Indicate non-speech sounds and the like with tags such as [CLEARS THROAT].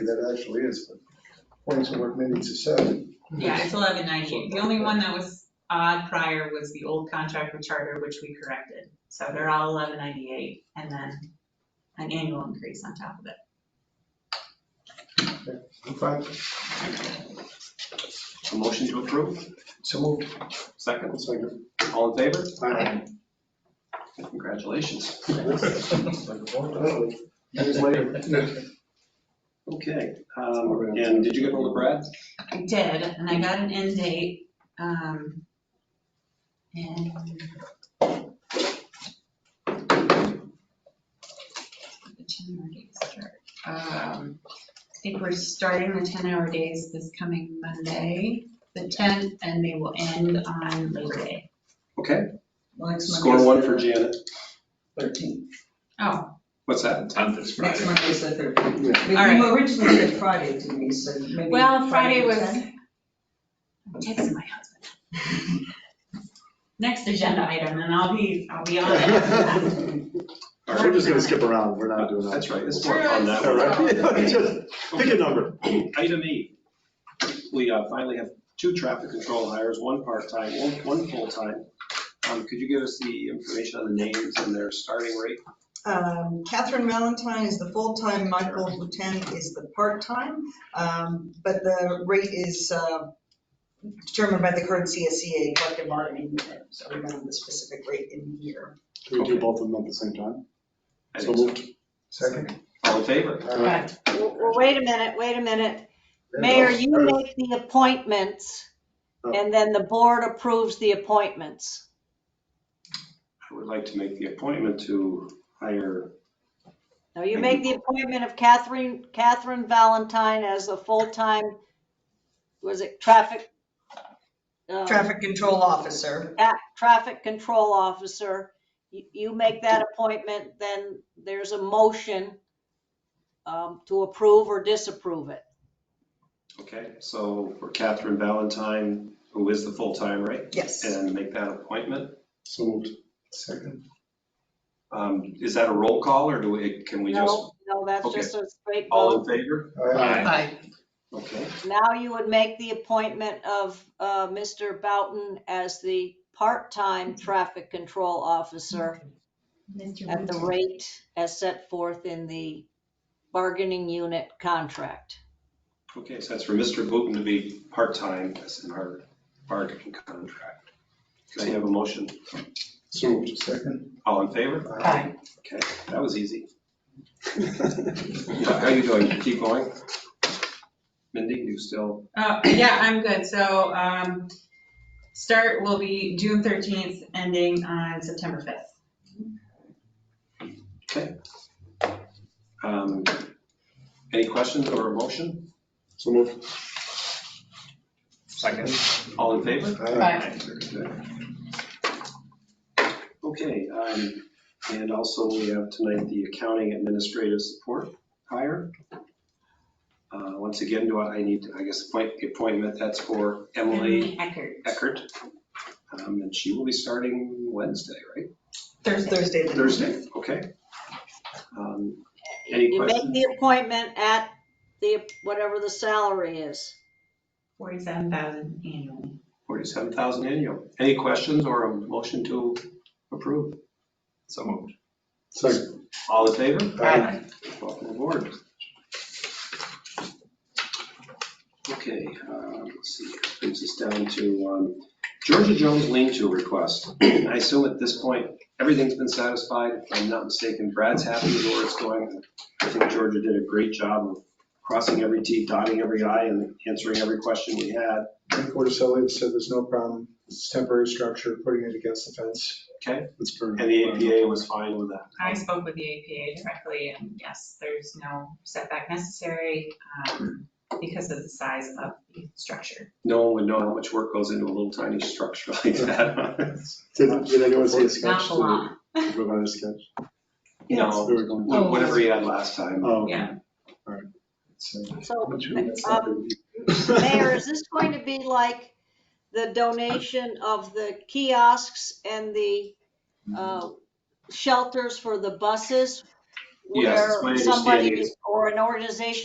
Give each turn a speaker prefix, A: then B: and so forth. A: that actually is, but points of work minutes aside.
B: Yeah, it's eleven ninety-eight. The only one that was odd prior was the old contract with Charter, which we corrected. So they're all eleven ninety-eight and then an annual increase on top of it.
A: I'm fine.
C: A motion to approve,
A: So moved.
C: second,
A: Second.
C: all in favor?
A: Aye.
C: Congratulations.
A: Years later.
C: Okay, um, and did you get hold of Brad?
B: I did, and I got an end date, um, and. The ten-hour days start. Um, I think we're starting the ten-hour days this coming Monday, the tenth, and they will end on Labor Day.
C: Okay,
D: Well, next
C: score
D: Monday's
C: one
D: the
C: for Janet.
D: 13th.
B: Oh,
C: What's [LAUGHS] that?
E: Tenth is
D: Next
E: Friday.
D: Monday's the 13th.
A: Yeah.
D: We-
B: All right.
D: You originally said Friday, Denise, so maybe.
B: well, Friday
D: the
B: was,
D: 10th?
B: I'm texting my husband. Next agenda item, and I'll be, I'll be on it.
C: All
F: [LAUGHS] [LAUGHS] We're
C: right,
F: just gonna skip around, we're not doing that.
C: That's right, it's more fun that
F: All
C: way.
F: right, [LAUGHS] just pick a number.
C: Item eight, we uh, finally have two traffic control hires, one part-time, one, one full-time. Um, could you give us the information on the names and their starting rate?
G: Um, Catherine Valentine is the full-time, Michael Boutin is the part-time, um, but the rate is uh, determined by the current CSEA collective bargaining unit, so we don't have the specific rate in here.
F: Can we do both of them at the same time?
C: I
F: So
C: think so.
F: moved.
A: Second. Uh,
C: All in favor?
A: Aye.
H: Well, well, wait a minute, wait a minute. Mayor, you make the appointments and then the board approves the appointments.
C: I would like to make the appointment to hire,
H: Now, you make the appointment of Catherine, Catherine Valentine as a full-time, was it traffic? um,
G: Traffic control officer.
H: at- Traffic control officer. You, you make that appointment, then there's a motion um, to approve or disapprove it.
C: okay, so for Catherine Valentine, who is the full-time, right?
G: Yes.
C: And make that appointment.
F: So moved.
A: Second.
C: Um, Is that a roll call or do we, can we just,
H: No, no, that's
C: okay.
H: just a straight
C: all
H: vote.
C: in favor?
A: Aye.
D: Aye.
C: Okay,
H: Now you would make the appointment of uh, Mr. Boughton as the part-time traffic control officer
B: Mr.
H: at the
B: Winter.
H: rate as set forth in the bargaining unit contract.
C: okay, so that's for Mr. Booton to be part-time, that's in our bargaining contract. Can I have a motion?
F: So moved.
A: Second.
C: All in favor?
D: Aye.
C: Okay, that was easy. How you doing? Keep going? Mindy, you still,
B: Uh, yeah, I'm good. So, um, start will be June thirteenth, ending on September fifth.
C: um, any questions or a motion?
F: [LAUGHS] So moved.
E: Second.
C: All in favor?
F: Uh,
A: Aye.
C: Okay, um, and also we have tonight the accounting administrative support hire. Uh, Once again, do I I need, to I guess, appoint the appointment, that's for Emily
B: Eckert.
C: Eckert. Um, And she will be starting Wednesday, right?
B: Thursday.
G: Thursday. the-
C: Thursday, okay. Um, Any
H: You make
C: questions?
H: the appointment at the, whatever the salary is.
B: Forty-seven thousand annually.
C: 47,000 annual. Any questions or a motion to approve?
E: So moved.
F: Second.
C: All in favor?
A: Aye.
C: Welcome aboard. Okay, um, let's see, brings us down to um, Georgia Jones lean-to request. [CLEARS THROAT] I assume at this point, everything's been satisfied, if I'm not mistaken, Brad's happy with where it's going. I think Georgia did a great job of crossing every T, dotting every I, and answering every question we had.
A: Frank Cordicelli said there's no problem, it's temporary structure, putting it against the fence.
C: Okay.
A: It's for.
C: And the APA was fine with that.
B: I spoke with the APA directly and yes, there's no setback necessary, um, because of the size of the structure.
C: No one would know how much work goes into a little tiny structure [LAUGHS] like that. [LAUGHS]
F: Did, did anyone see a sketch?
B: Not a lot. Oh.
F: Did you Provide a sketch?
C: You know,
F: They were going-
C: wha- whatever he had last time.
F: Oh.
B: Yeah.
H: So, um, Mayor, is this going to be like the donation of the kiosks and the uh, shelters for the buses?
C: Yes, it's my
H: Where somebody
C: understanding it's-
H: or an organization